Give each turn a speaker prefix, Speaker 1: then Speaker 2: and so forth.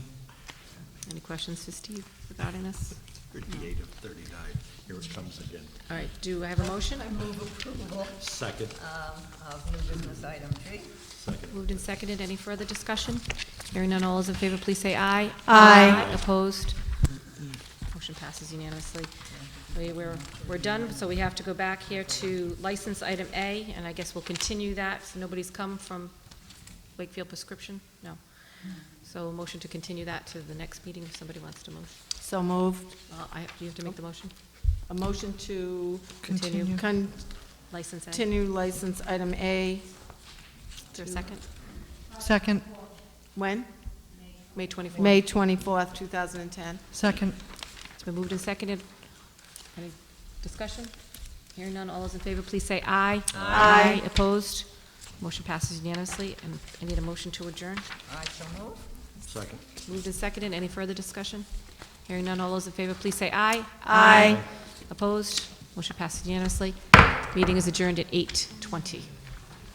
Speaker 1: Any questions for Steve regarding this?
Speaker 2: Thirty-eight of thirty-nine, here it comes again.
Speaker 1: All right, do I have a motion?
Speaker 3: I move approval
Speaker 2: Second,
Speaker 3: um, of new business item G.
Speaker 2: second.
Speaker 1: Moved and seconded, any further discussion? Hearing none, all those in favor, please say aye.
Speaker 4: Aye.
Speaker 1: Opposed? Motion passes unanimously. We- We're, we're done, so we have to go back here to license item A, and I guess we'll continue that, so nobody's come from Wakefield prescription? No. So a motion to continue that to the next meeting, if somebody wants to move.
Speaker 4: So moved.
Speaker 1: Uh, I, do you have to make the motion?
Speaker 4: A motion to
Speaker 1: Continue.
Speaker 4: continue
Speaker 1: License A?
Speaker 4: license item A,
Speaker 1: Is there a second?
Speaker 5: Second,
Speaker 4: when?
Speaker 1: May 24th.
Speaker 4: May 24th, 2010.
Speaker 5: second,
Speaker 1: It's been moved and seconded. Any discussion? Hearing none, all those in favor, please say aye.
Speaker 4: Aye.
Speaker 1: Opposed? Motion passes unanimously, and I need a motion to adjourn.
Speaker 3: I shall move.
Speaker 2: Second.
Speaker 1: Moved and seconded, any further discussion? Hearing none, all those in favor, please say aye.
Speaker 4: Aye.
Speaker 1: Opposed? Motion passes unanimously. Meeting is adjourned at 8:20.